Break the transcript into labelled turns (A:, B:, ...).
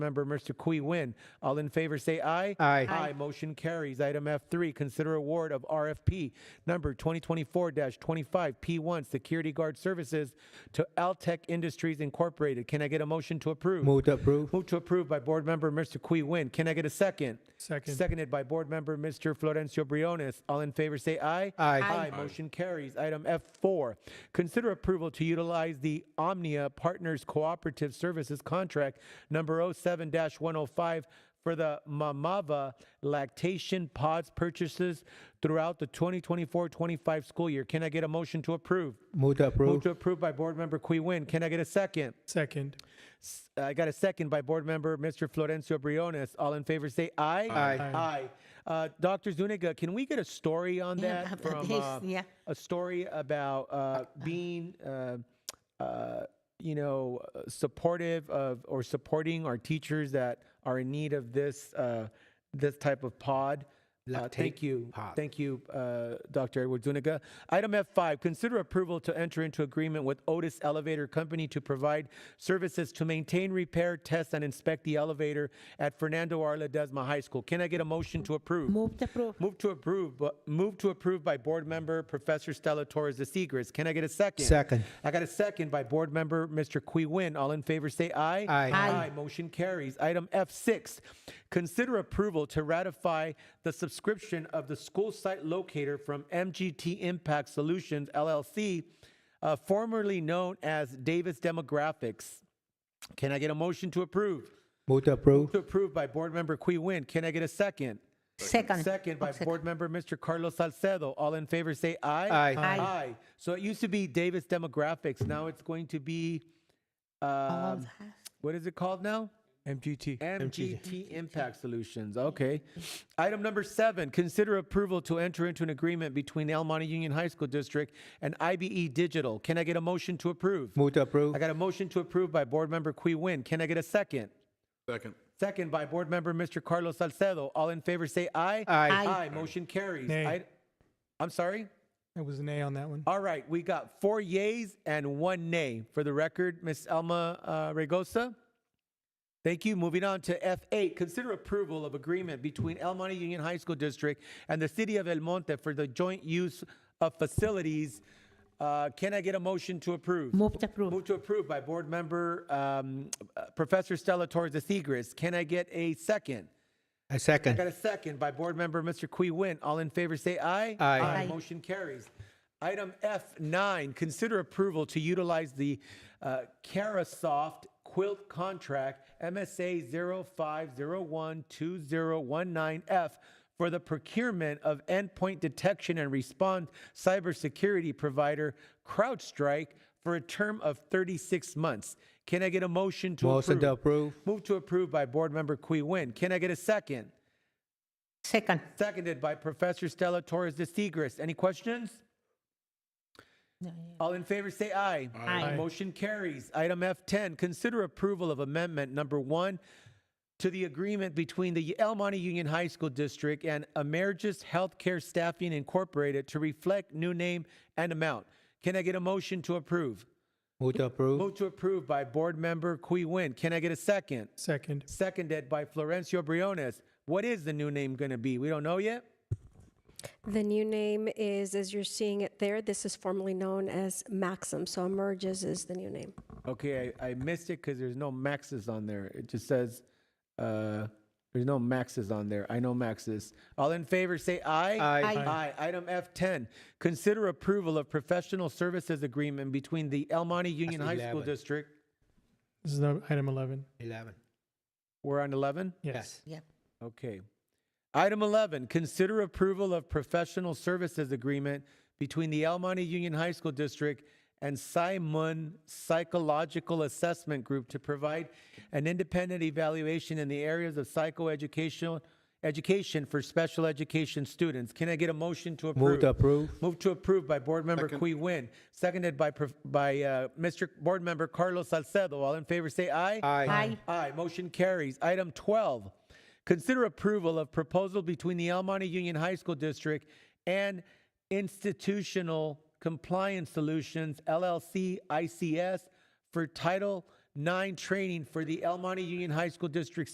A: member Mr. Kui Win. All in favor, say aye.
B: Aye.
A: Aye. Motion carries. Item F3, consider award of RFP number 2024-25P1 Security Guard Services to Altech Industries Incorporated. Can I get a motion to approve?
B: Move to approve.
A: Move to approve by Board Member Mr. Kui Win. Can I get a second?
C: Second.
A: Seconded by Board Member Mr. Florencio Briones. All in favor, say aye.
B: Aye.
A: Aye. Motion carries. Item F4, consider approval to utilize the Omnia Partners Cooperative Services Contract Number 07-105 for the Mamava lactation pods purchases throughout the 2024-25 school year. Can I get a motion to approve?
B: Move to
A: Move
B: approve.
A: to approve by Board Member Kui Win. Can I get a second?
C: Second.
A: S- uh, I got a second by Board Member Mr. Florencio Briones. All in favor, say aye.
B: Aye.
A: Aye. Uh, Dr. Zuniga, can we get a story on
D: Yeah,
A: that?
D: about
A: From,
D: this,
A: uh,
D: yeah.
A: A story about uh, being, uh, uh, you know, uh, supportive of or supporting our teachers that are in need of this, uh, this type of pod. Uh, thank
B: Lactate
A: you.
B: pod.
A: Thank you, uh, Dr. Edward Zuniga. Item F5, consider approval to enter into agreement with Otis Elevator Company to provide services to maintain, repair, test, and inspect the elevator at Fernando R. Ledesma High School. Can I get a motion to approve?
D: Move to approve.
A: Move to approve, bu- move to approve by Board Member Professor Stella Torres de Seigres. Can I get a second?
B: Second.
A: I got a second by Board Member Mr. Qui Win. All in favor, say aye.
B: Aye.
D: Aye.
A: Motion carries. Item F6, consider approval to ratify the subscription of the school site locator from MGT Impact Solutions LLC, uh, formerly known as Davis Demographics. Can I get a motion to approve?
B: Move to approve.
A: To approve by Board Member Qui Win. Can I get a second?
D: Second. Oh,
A: Second by
D: Second.
A: Board Member Mr. Carlos Salcedo. All in favor, say aye.
B: Aye.
D: Aye.
A: Aye. So it used to be Davis Demographics. Now it's going to be,
D: All
A: um,
D: that.
A: what is it called now?
C: MGT.
A: MGT Impact Solutions. Okay. Item number seven, consider approval to enter into an agreement between El Monte Union High School District and IBE Digital. Can I get a motion to approve?
B: Move to approve.
A: I got a motion to approve by Board Member Qui Win. Can I get a second?
E: Second.
A: Second by Board Member Mr. Carlos Salcedo. All in favor, say aye.
B: Aye.
D: Aye.
A: Aye. Motion carries.
C: Nay.
A: I- I'm sorry?
C: That was an A on that one.
A: All right, we got four yays and one nay. For the record, Ms. Alma uh, Regosa. Thank you. Moving on to F8, consider approval of agreement between El Monte Union High School District and the City of El Monte for the joint use of facilities. Uh, Can I get a motion to approve?
D: Move to approve.
A: Move to approve by Board Member um, uh, Professor Stella Torres de Seigres. Can I get a second?
B: I
A: I got
B: second.
A: a second by Board Member Mr. Qui Win. All in favor, say aye.
B: Aye.
D: Aye.
A: Motion carries. Item F9, consider approval to utilize the uh, Carasoft Quilt Contract MSA 05012019F for the procurement of endpoint detection and response cybersecurity provider CrowdStrike for a term of 36 months. Can I get a motion to approve?
B: Motion to approve.
A: Move to approve by Board Member Qui Win. Can I get a second?
D: Second.
A: Seconded by Professor Stella Torres de Seigres. Any questions? All in favor say aye.
D: Aye. Aye.
A: Motion carries. Item F10, consider approval of amendment number one to the agreement between the El Monte Union High School District and Emergis Healthcare Staffing Incorporated to reflect new name and amount. Can I get a motion to approve?
B: Move to approve.
A: Move to approve by Board Member Qui Win. Can I get a second?
C: Second.
A: seconded by Florencio Briones. What is the new name going to be? We don't know yet.
F: The new name is, as you're seeing it there, this is formerly known as Maxim. So Emerges is the new name.
A: Okay, I, I missed it because there's no Maxes on there. It just says uh, there's no Maxes on there. I know Maxes. All in favor, say aye.
B: Aye.
D: Aye.
A: Aye. Item F10. Consider approval of professional services agreement between the El Monte Union High School
B: 11.
A: District.
C: This is no- item 11.
B: Eleven.
A: We're on 11.
C: Yes.
D: Yep.
A: Okay. Item 11, consider approval of professional services agreement between the El Monte Union High School District and Simon Psychological Assessment Group to provide an independent evaluation in the areas of psychoeducational education for special education students. Can I get a motion to approve?
B: Move to approve.
A: Move to approve by Board Member Qui Win, seconded by, Prof- by uh, Mr. Board Member Carlos Salcedo. All in favor, say aye.
D: Aye.
A: Aye, motion carries. Item 12, consider approval of proposal between the El Monte Union High School District and Institutional Compliance Solutions, LLC, ICS, for Title nine training for the El Monte Union High School District